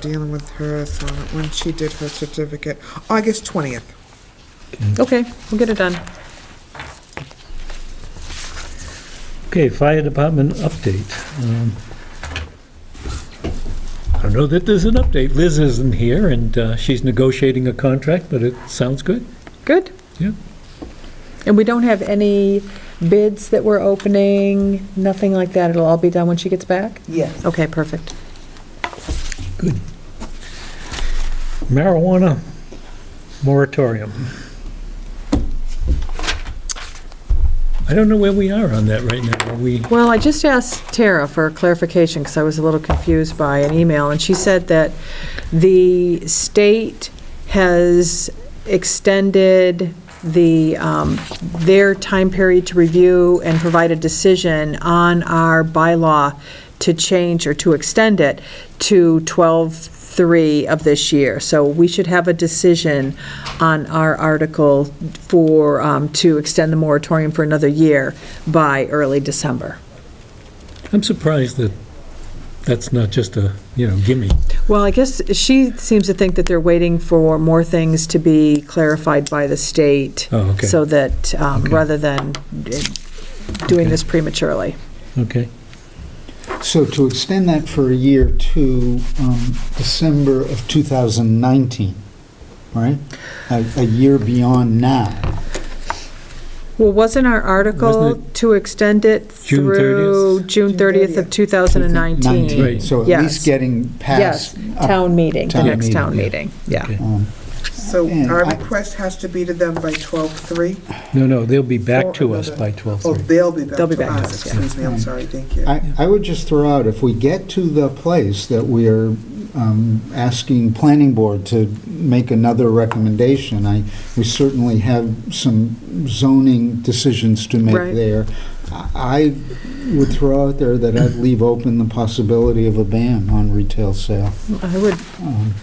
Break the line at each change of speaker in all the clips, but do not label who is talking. dealing with her, so when she did her certificate, August 20th.
Okay, we'll get it done.
Okay, fire department update. Um, I don't know that there's an update. Liz isn't here, and uh, she's negotiating a contract, but it sounds good.
Good.
Yeah.
And we don't have any bids that we're opening, nothing like that. It'll all be done when she gets back?
Yes.
Okay, perfect.
Marijuana moratorium. I don't know where we are on that right now. Are we,
Well, I just asked Tara for clarification because I was a little confused by an email, and she said that the state has extended the, um, their time period to review and provide a decision on our bylaw to change or to extend it to 12/3 of this year. So we should have a decision on our article for, um, to extend the moratorium for another year by early December.
I'm surprised that that's not just a, you know, gimme.
Well, I guess she seems to think that they're waiting for more things to be clarified by the state.
Oh, okay.
So that, um,
Okay.
rather than eh, doing this prematurely.
Okay.
So to extend that for a year to um, December of 2019, right? A a year beyond now.
Well, wasn't our article
Wasn't
to extend it
June
through June 30th of 2019?
Right.
So at
Yes.
least getting
Yes,
past. up-
town meeting, the
Town
next
meeting,
town
yeah.
meeting, yeah.
Okay.
um,
So
And
our
I-
request has to be to them by 12/3?
No, no, they'll be back to us by
Oh,
12:30.
they'll be back
They'll be
to
back to
us,
us, yeah.
excuse me, I'm sorry, thank you.
I I would just throw out, if we get to the place that we are um, asking planning board to make another recommendation, I, we certainly have some zoning decisions to
Right.
make there. I I would throw out there that I'd leave open the possibility of a ban on retail sale.
I would,
Um,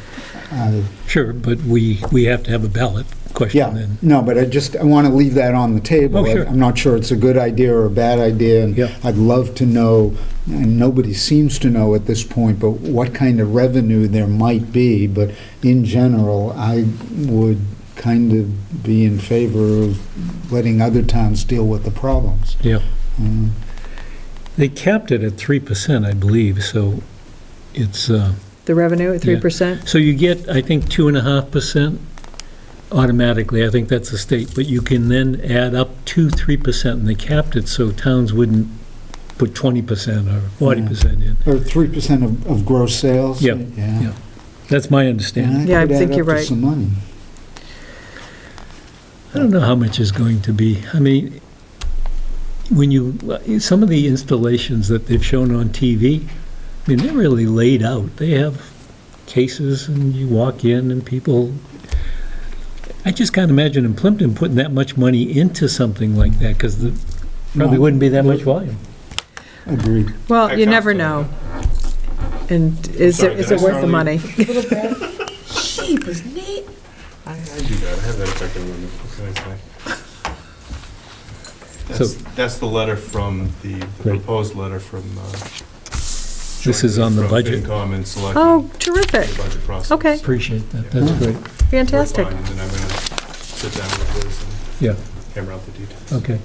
I-
Sure, but we, we have to have a ballot question
Yeah,
then.
no, but I just, I want to leave that on the table.
Oh, sure.
I'm not sure it's a good idea or a bad idea, and
Yeah.
I'd love to know, and nobody seems to know at this point, but what kind of revenue there might be, but in general, I would kind of be in favor of letting other towns deal with the problems.
Yeah.
Mm.
They capped it at 3%, I believe, so it's, uh,
the revenue at 3%?
so you get, I think, 2.5% automatically. I think that's the state, but you can then add up to 3%, and they capped it so towns wouldn't put 20% or 40% in.
Or 3% of of gross sales?
Yeah, yeah. That's my
And
understanding.
that
Yeah, I
could add
think
up
you're
to
right.
some money.
I don't know how much is going to be. I mean, when you, some of the installations that they've shown on TV, I mean, they're really laid out. They have cases and you walk in and people, I just can't imagine in Plimpton putting that much money into something like that because the, probably
No.
wouldn't be that much volume.
Agreed.
Well, you
Excellent.
never know. And is
sorry,
it,
did
is
I
it worth the
startle
money?
you?
Sheep is neat.
I, I do that. I have that effect on women. What can I say? That's, that's the letter from the, the
Great.
proposed letter from. Uh,
This is on the budget.
From FinCom and selecting
Oh, terrific,
the budget process.
Okay.
Appreciate that. That's great.
fantastic.
And then I'm going to sit down with Liz and
Yeah,
hammer out the details.
okay.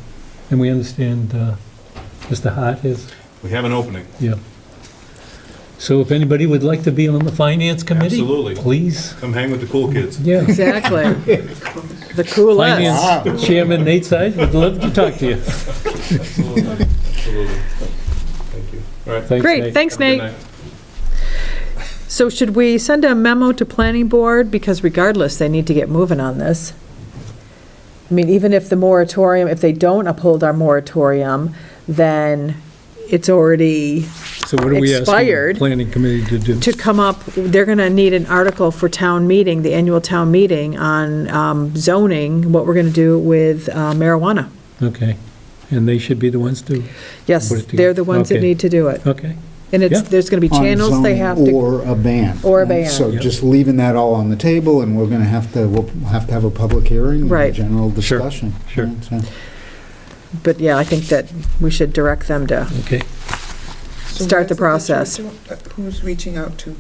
And we understand uh, Mr. Hart is
We have an opening.
Yeah. So if anybody would like to be on the Finance Committee?
Absolutely.
Please,
Come hang with the cool kids.
yeah.
Exactly. The coolest.
Finance Chairman Nate Seid would love to talk to you.
Absolutely. Absolutely. Thank you. All right.
Thanks,
Great,
Nate.
thanks,
Have a good
Nate.
night.
So should we send a memo to Planning Board? Because regardless, they need to get moving on this. I mean, even if the moratorium, if they don't uphold our moratorium, then it's already
So what are we asking the
Expired.
Planning Committee to do?
to come up, they're going to need an article for town meeting, the annual town meeting on um, zoning, what we're going to do with uh, marijuana.
Okay, and they should be the ones to,
Yes,
Put it together.
they're the ones that
Okay.
need to do it.
okay,
And it's,
Yeah.
there's going to be
on
channels they
zoning
have to.
Or a ban.
Or a
Right?
ban.
So
Yep.
just leaving that all on the table, and we're going to have to, we'll have to have a public hearing and
Right.
a general
Sure,
discussion.
sure.
Right, so-
But yeah, I think that we should direct them to
okay.
So
Start
where's
the process.
picture? uh, Who's reaching out to?